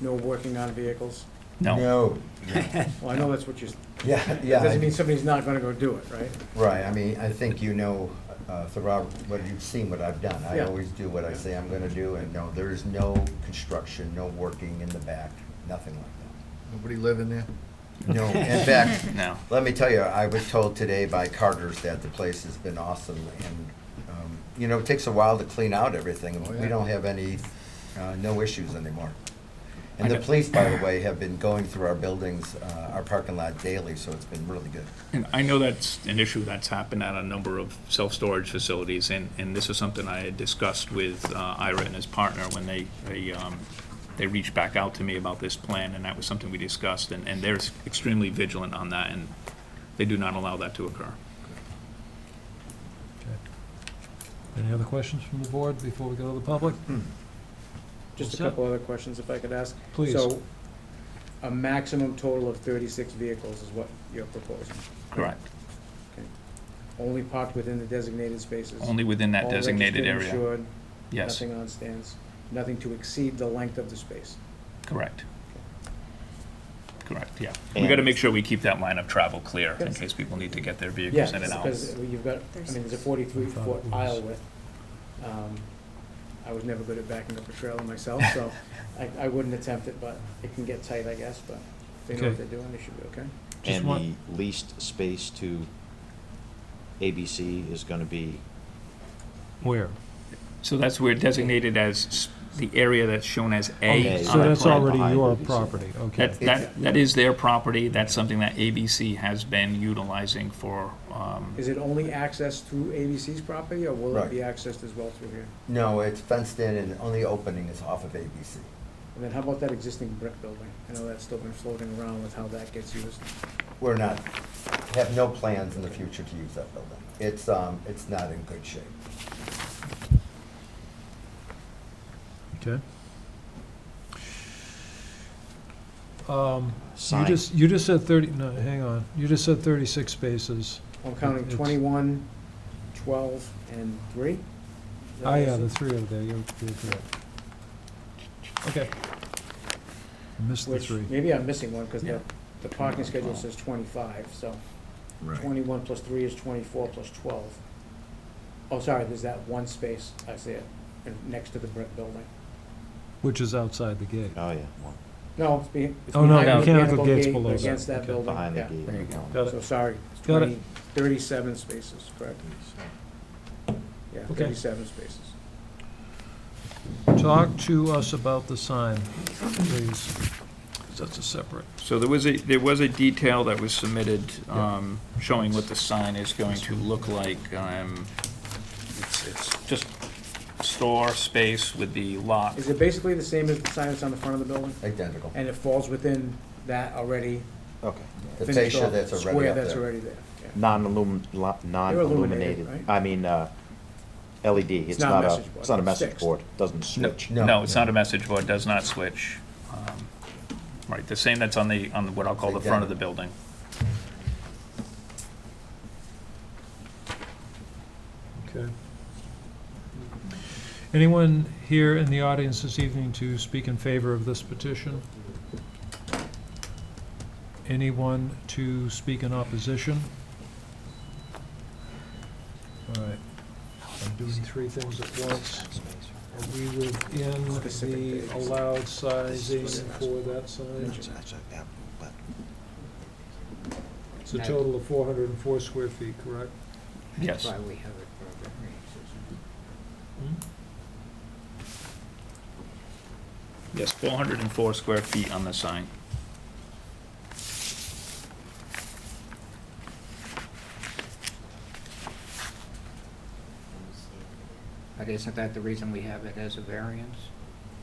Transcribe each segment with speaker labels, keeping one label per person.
Speaker 1: no working on vehicles?
Speaker 2: No,
Speaker 3: No,
Speaker 1: Well, I know that's what you, s-
Speaker 3: yeah,
Speaker 1: that
Speaker 3: yeah,
Speaker 1: doesn't mean
Speaker 3: I-
Speaker 1: somebody's not gonna go do it, right?
Speaker 3: right, I mean, I think you know, uh, Sir Robert, what you've seen what I've done. I
Speaker 1: Yeah.
Speaker 3: always do what I say I'm gonna do, and no, there is no construction, no working in the back, nothing like
Speaker 4: Nobody living there?
Speaker 3: that. No, in fact,
Speaker 2: no.
Speaker 3: Let me tell you, I was told today by Carter's that the place has been awesome, and, um, you know, it takes a while to clean out everything.
Speaker 4: Oh, yeah.
Speaker 3: We don't have any, uh, no issues anymore. And
Speaker 2: I
Speaker 3: the
Speaker 2: know.
Speaker 3: police, by the way, have been going through our buildings, uh, our parking lot daily, so it's been really good.
Speaker 2: And I know that's an issue that's happened at a number of self-storage facilities, and, and this is something I had discussed with uh, Ira and his partner when they, they, um, they reached back out to me about this plan, and that was something we discussed, and, and they're extremely vigilant on that, and they do not allow that to occur.
Speaker 5: Any other questions from the board before we go to the public?
Speaker 1: Just a
Speaker 5: Well, sir.
Speaker 1: couple other questions if I could ask.
Speaker 5: Please.
Speaker 1: So, a maximum total of thirty-six vehicles is what you're proposing,
Speaker 2: Correct.
Speaker 1: only parked within the designated spaces?
Speaker 2: Only within that
Speaker 1: all
Speaker 2: designated
Speaker 1: registered,
Speaker 2: area.
Speaker 1: insured,
Speaker 2: Yes,
Speaker 1: Nothing on stands, nothing to exceed the length of the space.
Speaker 2: correct. Correct, yeah. We gotta make sure we keep that line of travel clear, in
Speaker 1: Yes.
Speaker 2: case people need to get their
Speaker 1: Yeah,
Speaker 2: vehicles in and out.
Speaker 1: because you've got, I mean, there's a forty-three foot aisle width. Um, I was never good at backing up a trailer myself, so I, I wouldn't attempt it, but it can get tight, I guess, but if they know what
Speaker 5: Okay.
Speaker 1: they're doing, they should be okay.
Speaker 5: Just
Speaker 6: And the
Speaker 5: one-
Speaker 6: least space to ABC is gonna be,
Speaker 5: Where?
Speaker 2: So that's where designated as s- the area that's shown as
Speaker 6: Okay,
Speaker 2: A
Speaker 5: So
Speaker 2: on the
Speaker 5: that's
Speaker 2: plan.
Speaker 5: already
Speaker 6: behind
Speaker 5: your
Speaker 6: it, you said.
Speaker 5: property, okay.
Speaker 2: That, that, that is their property, that's something that ABC has been utilizing for, um,
Speaker 1: Is it only accessed through ABC's property, or will it
Speaker 3: Right.
Speaker 1: be accessed as well through here?
Speaker 3: No, it's fenced in, and the only opening is off of ABC.
Speaker 1: And then how about that existing brick building? I know that's still been floating around with how that gets used.
Speaker 3: We're not, have no plans in the future to use that building. It's, um, it's not in good shape.
Speaker 5: Okay. Um, You
Speaker 6: Sign.
Speaker 5: just, you just said 30, no, hang on, you just said 36 spaces.
Speaker 1: I'm counting
Speaker 5: It's-
Speaker 1: 21, 12, and 3. Is that
Speaker 5: Ah,
Speaker 1: what I
Speaker 5: yeah,
Speaker 1: said?
Speaker 5: the three over there, you're, you're correct. Okay. I Missed the
Speaker 1: Which,
Speaker 5: three.
Speaker 1: maybe I'm missing one, because
Speaker 2: Yeah.
Speaker 1: the, the parking
Speaker 2: Well.
Speaker 1: schedule says 25, so
Speaker 3: Right.
Speaker 1: 21 plus 3 is 24 plus 12. Oh, sorry, there's that one space, I see it, and next to the brick building.
Speaker 5: Which is outside the gate.
Speaker 6: oh yeah, well,
Speaker 1: No, it's behind, it's
Speaker 5: Oh, no,
Speaker 1: behind the
Speaker 5: mechanical
Speaker 1: mechanical
Speaker 5: gates
Speaker 1: gate,
Speaker 5: below
Speaker 1: but
Speaker 5: that.
Speaker 1: against that
Speaker 5: Okay.
Speaker 1: building,
Speaker 6: behind the
Speaker 1: yeah.
Speaker 6: gate.
Speaker 2: There you go.
Speaker 5: Got
Speaker 1: So,
Speaker 5: it.
Speaker 1: sorry, it's
Speaker 5: Got it.
Speaker 1: 20, 37 spaces, correct? Yeah,
Speaker 5: Okay.
Speaker 1: 37 spaces.
Speaker 5: Talk to us about the sign, please. 'cause That's a separate.
Speaker 2: so there was a, there was a detail that was submitted,
Speaker 5: Yeah.
Speaker 2: um, showing what the sign is going to look like, um, it's, it's just store space with the lot.
Speaker 1: Is it basically the same as the sign that's on the front of the building?
Speaker 3: Identical.
Speaker 1: And it falls within that already
Speaker 6: okay.
Speaker 3: The
Speaker 1: finished
Speaker 3: fascia
Speaker 1: off
Speaker 3: that's already
Speaker 1: square
Speaker 3: up
Speaker 1: that's
Speaker 3: there.
Speaker 1: already there? yeah.
Speaker 6: Non-illum, la-
Speaker 1: illuminated,
Speaker 6: non-illuminated,
Speaker 1: right?
Speaker 6: I mean, uh, LED, it's
Speaker 1: not a
Speaker 6: not a,
Speaker 1: message board.
Speaker 6: it's not a
Speaker 1: It's
Speaker 6: message
Speaker 1: fixed.
Speaker 6: board, doesn't
Speaker 2: No,
Speaker 6: switch.
Speaker 3: No.
Speaker 2: no, it's not a message board, does not switch. Um, Right, the same that's on the, on the- what I'll call the front of the building.
Speaker 5: Okay. Anyone here in the audience this evening to speak in favor of this petition? Anyone to speak in opposition? All right. I'm doing three things at once. Are we within
Speaker 1: Specific
Speaker 5: the
Speaker 1: days.
Speaker 5: allowed sizing for that sign? It's a total of 404 square feet, correct?
Speaker 2: Yes.
Speaker 1: we have it for a Hmm?
Speaker 2: Yes, 404 square feet on the sign.
Speaker 7: But isn't that the reason we have it as a variance?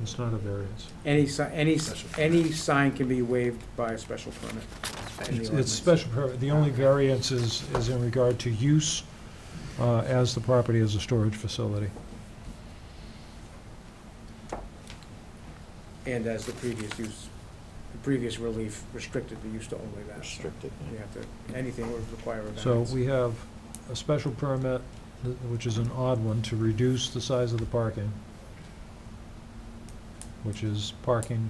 Speaker 5: It's not a variance.
Speaker 1: Any si, any, s- any sign can be waived by a special permit. in the
Speaker 5: It's- It's
Speaker 1: ordinance.
Speaker 5: special permit, the only variance is, is in regard to use uh, as the property as a storage facility.
Speaker 1: And as the previous use, the previous relief restricted the use to only that. so
Speaker 6: Restricted,
Speaker 1: You
Speaker 6: yeah.
Speaker 1: have to, anything would require a
Speaker 5: So
Speaker 1: variance.
Speaker 5: we have a special permit, th- which is an odd one, to reduce the size of the parking, which is parking